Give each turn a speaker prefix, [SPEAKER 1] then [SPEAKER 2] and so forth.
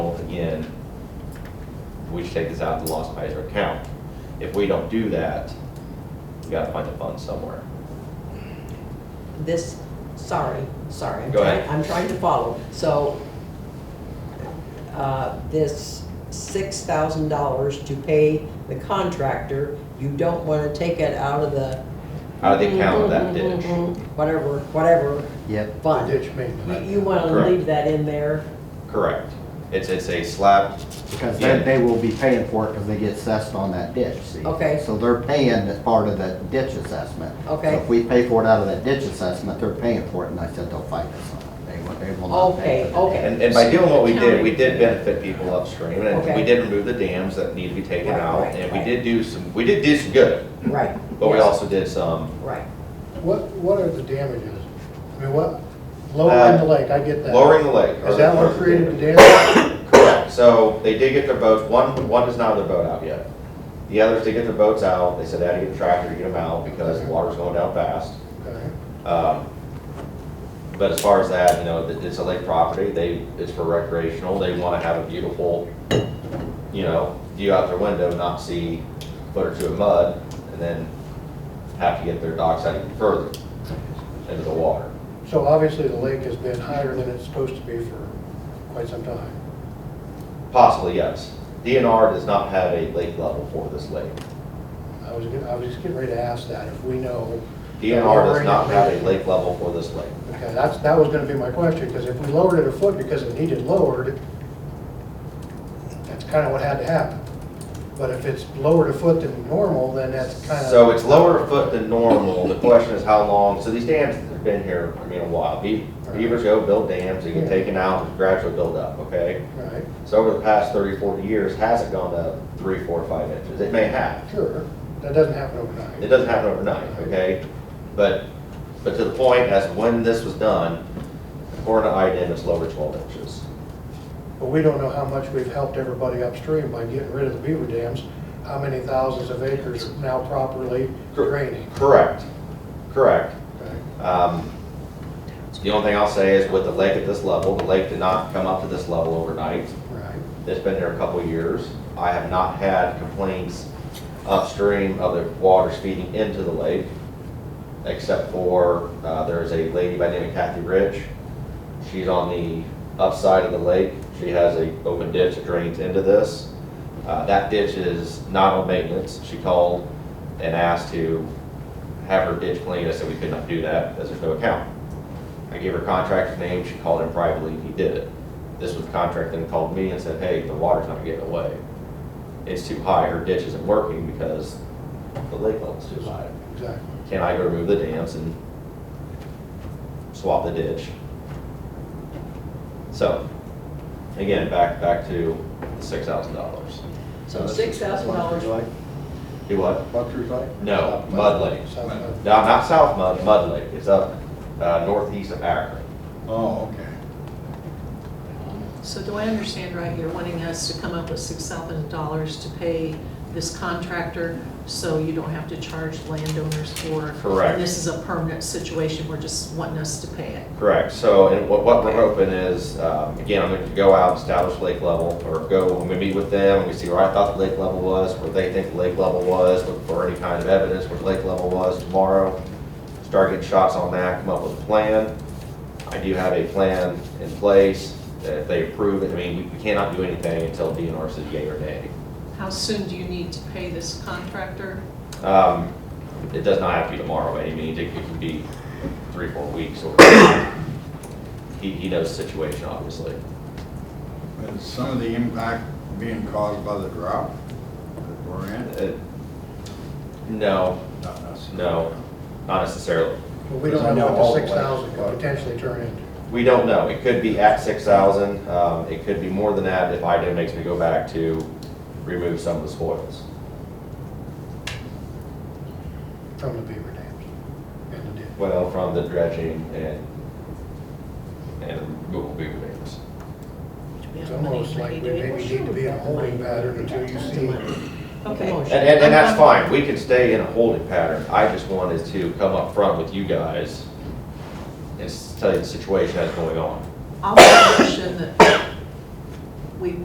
[SPEAKER 1] we should take this out of the lost Kaiser account. If we don't do that, we gotta find the funds somewhere.
[SPEAKER 2] this, sorry, sorry. I'm
[SPEAKER 1] Go ahead.
[SPEAKER 2] trying- I'm trying to follow. So uh, this $6,000 to pay the contractor, you don't want to take it out of the.
[SPEAKER 1] Out of the
[SPEAKER 2] Mm-hmm,
[SPEAKER 1] account of that ditch.
[SPEAKER 2] Whatever, whatever
[SPEAKER 3] Yep.
[SPEAKER 2] fund.
[SPEAKER 4] Ditch
[SPEAKER 2] You-
[SPEAKER 4] maintenance.
[SPEAKER 2] You want to
[SPEAKER 1] Correct.
[SPEAKER 2] leave that in there.
[SPEAKER 1] Correct. It's, it's a slab,
[SPEAKER 3] Because they, they will be paying for it because they get assessed on that ditch, see?
[SPEAKER 2] Okay.
[SPEAKER 3] So they're paying as part of that ditch assessment.
[SPEAKER 2] Okay.
[SPEAKER 3] So if we pay for it out of that ditch assessment, they're paying for it, and I said they'll fight us on it. They will, they will not pay.
[SPEAKER 2] Okay,
[SPEAKER 3] for the
[SPEAKER 2] okay.
[SPEAKER 1] and, and by doing what we did, we did benefit people upstream, and we did remove the dams that need to be taken
[SPEAKER 2] Right,
[SPEAKER 1] out,
[SPEAKER 2] right,
[SPEAKER 1] and we
[SPEAKER 2] right.
[SPEAKER 1] did do some, we did do some good,
[SPEAKER 2] Right.
[SPEAKER 1] but we
[SPEAKER 2] yes,
[SPEAKER 1] also did some
[SPEAKER 2] Right.
[SPEAKER 4] What, what are the damages? I mean, what, lowering the lake, I get that.
[SPEAKER 1] Uh, lowering the lake.
[SPEAKER 4] Is that what created the damage?
[SPEAKER 1] Correct, so they did get their boats, one, one does not have their boat out yet. The others did get their boats out, they said they had to get a tractor to get them out because the water's going down fast.
[SPEAKER 4] Okay.
[SPEAKER 1] Um, But as far as that, you know, it- it's a lake property, they, it's for recreational, they want to have a beautiful, you know, view out their window, not see a foot or two of mud, and then have to get their docks out even further into the water.
[SPEAKER 4] So obviously, the lake has been higher than it's supposed to be for quite some time.
[SPEAKER 1] Possibly, yes. DNR does not have a lake level for this lake.
[SPEAKER 4] I was, get- I was just getting ready to ask that, if we know.
[SPEAKER 1] DNR does not have a lake level for this lake.
[SPEAKER 4] Okay, that's, that was gonna be my question, because if we lowered it a foot because it needed lowered, that's kind of what had to happen. But if it's lowered a foot than normal, then that's kind of.
[SPEAKER 1] So it's lower foot than normal. The question is how long, so these dams have been here, I mean, a while. Be- Beavers go build dams, they get taken out and gradually build up, okay?
[SPEAKER 4] Right,
[SPEAKER 1] So over the past 30, 40 years, has it gone up three, four, five inches? It may have.
[SPEAKER 4] sure, that doesn't happen
[SPEAKER 1] It
[SPEAKER 4] overnight.
[SPEAKER 1] doesn't happen overnight, okay? But, but to the point as to when this was done, according to IDIM, it's lower twelve inches.
[SPEAKER 4] But we don't know how much we've helped everybody upstream by getting rid of the beaver dams, how many thousands of acres are now properly
[SPEAKER 1] Cor-
[SPEAKER 4] draining.
[SPEAKER 1] Correct, correct.
[SPEAKER 4] Okay.
[SPEAKER 1] Um, The only thing I'll say is with the lake at this level, the lake did not come up to this level overnight.
[SPEAKER 4] Right,
[SPEAKER 1] It's been there a couple of years. I have not had complaints upstream of the waters feeding into the lake, except for, uh, there's a lady by the name of Kathy Rich. She's on the upside of the lake. She has a open ditch that drains into this. Uh, that ditch is not on maintenance. She called and asked to have her ditch cleaned. I said we could not do that because there's no account. I gave her contractor's name. She called him privately. He did it. This was the contractor then called me and said, hey, the water's not getting away. It's too high. Her ditch isn't working because the lake level's too high.
[SPEAKER 4] exactly.
[SPEAKER 1] Can I go remove the dams and swap the ditch? So, again, back, back to the six thousand dollars.
[SPEAKER 2] So $6,000.
[SPEAKER 1] Do what?
[SPEAKER 5] Buckaroo Lake?
[SPEAKER 1] No, Mud Lake.
[SPEAKER 4] South of-
[SPEAKER 1] No, not South Mud, Mud Lake. It's up, uh, northeast of Akron.
[SPEAKER 5] Oh, okay.
[SPEAKER 6] So do I understand right, you're wanting us to come up with six thousand dollars to pay this contractor so you don't have to charge landowners for?
[SPEAKER 1] Correct.
[SPEAKER 6] And this is a permanent situation, we're just wanting us to pay it.
[SPEAKER 1] Correct, so, and what, what we're hoping is, um, again, I'm going to go out, establish lake level, or go, when we meet with them, and we see where I thought the lake level was, where they think the lake level was, look for any kind of evidence where the lake level was tomorrow, start getting shots on that, come up with a plan. I do have a plan in place, that if they approve it, I mean, we cannot do anything until DNR says yea or nay.
[SPEAKER 6] How soon do you need to pay this contractor?
[SPEAKER 1] Um, It does not have to be tomorrow by any means, it it can be three, four weeks, or, he, he knows the situation, obviously.
[SPEAKER 5] Is some of the impact being caused by the drought that we're in?
[SPEAKER 1] Uh, No,
[SPEAKER 5] Not necessarily.
[SPEAKER 1] no, not necessarily.
[SPEAKER 4] But we don't know what the six thousand could potentially turn into.
[SPEAKER 1] We don't know. It could be at six thousand. Um, it could be more than that if IDIM makes me go back to remove some of the spoils.
[SPEAKER 4] from the beaver dams and the ditch.
[SPEAKER 1] Well, from the dredging and, and Google Beaver dams.
[SPEAKER 4] It's almost like we maybe need to be in a holding pattern until you see,
[SPEAKER 6] Okay.
[SPEAKER 1] And, and, and that's fine. We can stay in a holding pattern. I just wanted to come up front with you guys and s- tell you the situation that's going on.
[SPEAKER 6] I'll make a motion that